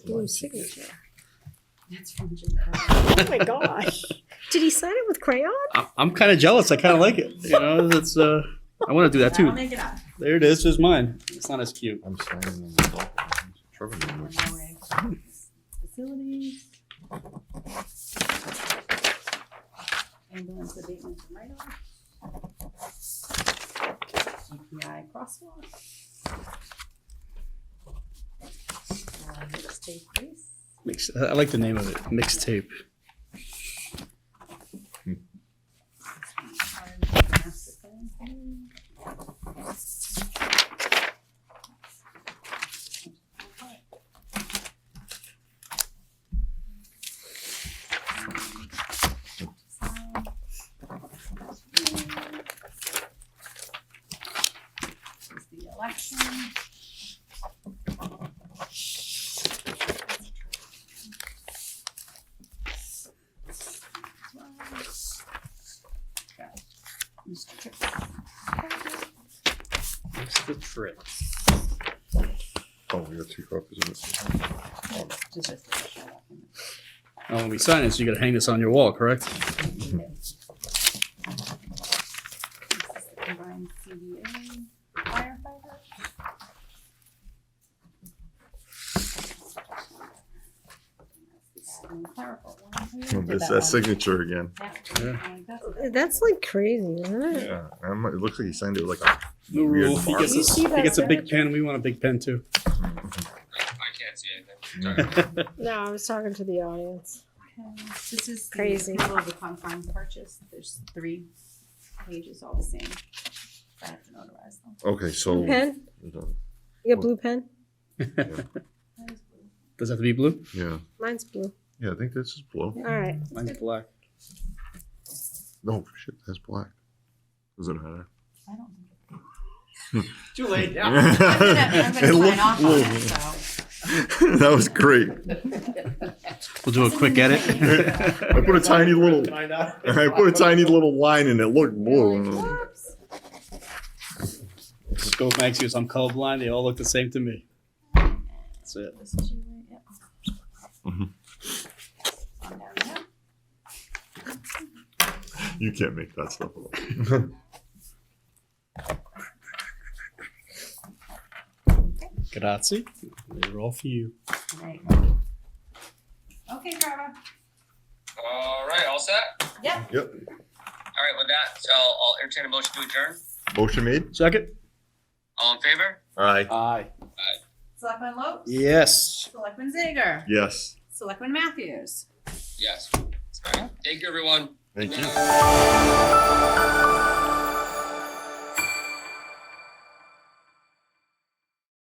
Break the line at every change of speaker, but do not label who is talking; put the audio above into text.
blue signature.
That's from Jim Carrey.
Oh my gosh. Did he sign it with crayon?
I- I'm kind of jealous. I kind of like it. You know, that's uh, I want to do that
I'll
too.
make it up.
There it is. There's mine. It's not as cute.
I'm signing them with all kinds of trouble numbers.
Facilities. Ambulance abatement and write-off. GPI crosswalk. Uh, let's take this.
Mix. I like the name of it. Mixtape.
This one. This is The election. Mr. Tripp.
Mr. Fritz.
Oh, we got two copies of this.
Just this official
Now, Oh, when we sign this, you got to hang this on your wall, correct?
document. This is the combined CDA firefighter. That's the admin clerical one.
It's that signature again.
That one, like, that's the
That's like crazy, isn't it?
Yeah, I might- it looks like he signed it with like. a-
No
Weird
rule. He gets,
You
a,
see
he
that
gets a big
signature?
pen. We want a big pen too.
I can't see anything.
No, I was talking to the audience.
pen. This is
Crazy.
the approval of the confirmed purchase. There's three pages all the same. I have to notarize them.
Okay, so.
Blue pen? You got blue pen?
That is blue.
Does it have to be blue?
Yeah,
Mine's blue.
yeah, I think this is blue.
All right.
Mine's black.
No, shit, that's black. Doesn't matter.
I don't think.
Too late.
I'm gonna, I'm
It
gonna sign
looked
off on it,
blue.
so.
That was great.
We'll do a quick edit.
I put a tiny little,
I know.
I put a tiny little line in it, looked
You're
blue.
like, "Whoops."
Scope Max here, so I'm colorblind. They all look the same to me. That's it.
This is your way, yep.
Mhm.
On down there.
You can't make that stuff up.
Grazie. They're all for you.
There you go. Okay, Trevor.
All right, all set.
Yep.
Yep,
All right, with that, so I'll entertain a motion to adjourn.
motion made?
Second.
All in favor?
Aye.
Aye.
Selectman Lopes.
Yes.
Selectman Zager.
Yes.
Selectman Matthews.
Yes. All right. Thank you, everyone.
Thank you.